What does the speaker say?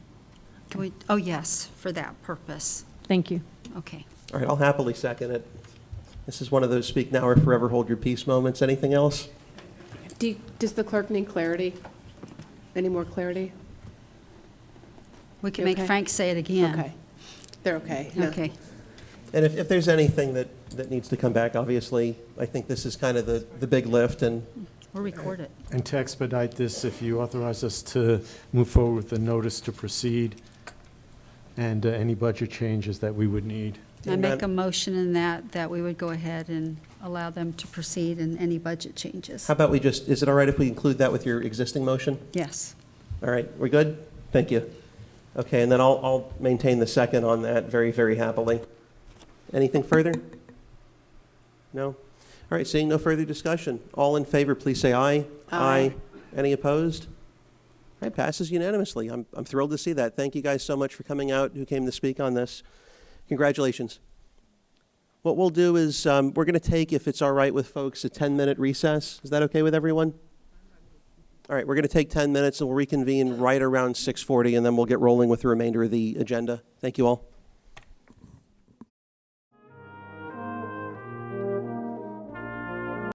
would, oh, yes, for that purpose. Thank you. Okay. All right, I'll happily second it. This is one of those speak now or forever hold your peace moments. Anything else? Do- Does the clerk need clarity? Any more clarity? We can make Okay. Frank say it again. Okay. They're okay. No. Okay. And if, if there's anything that, that needs to come back, obviously, I think this is kind of the, the big lift, and We'll record it. And to expedite this, if you authorize us to move forward with the notice to proceed and uh, any budget changes that we would need. I And make a then- motion in that, that we would go ahead and allow them to proceed in any budget changes. how about we just, is it all right if we include that with your existing motion? Yes. All right, we're good? Thank you. Okay, and then I'll, I'll maintain the second on that very, very happily. Anything further? No? All right, seeing no further discussion. All in favor, please say aye. Aye. Any opposed? All right, passes unanimously. I'm, I'm thrilled to see that. Thank you guys so much for coming out, who came to speak on this. Congratulations. What we'll do is, um, we're going to take, if it's all right with folks, a 10-minute recess. Is that okay with everyone? All right, we're going to take 10 minutes and we'll reconvene right around 6:40 and then we'll get rolling with the remainder of the agenda. Thank you all.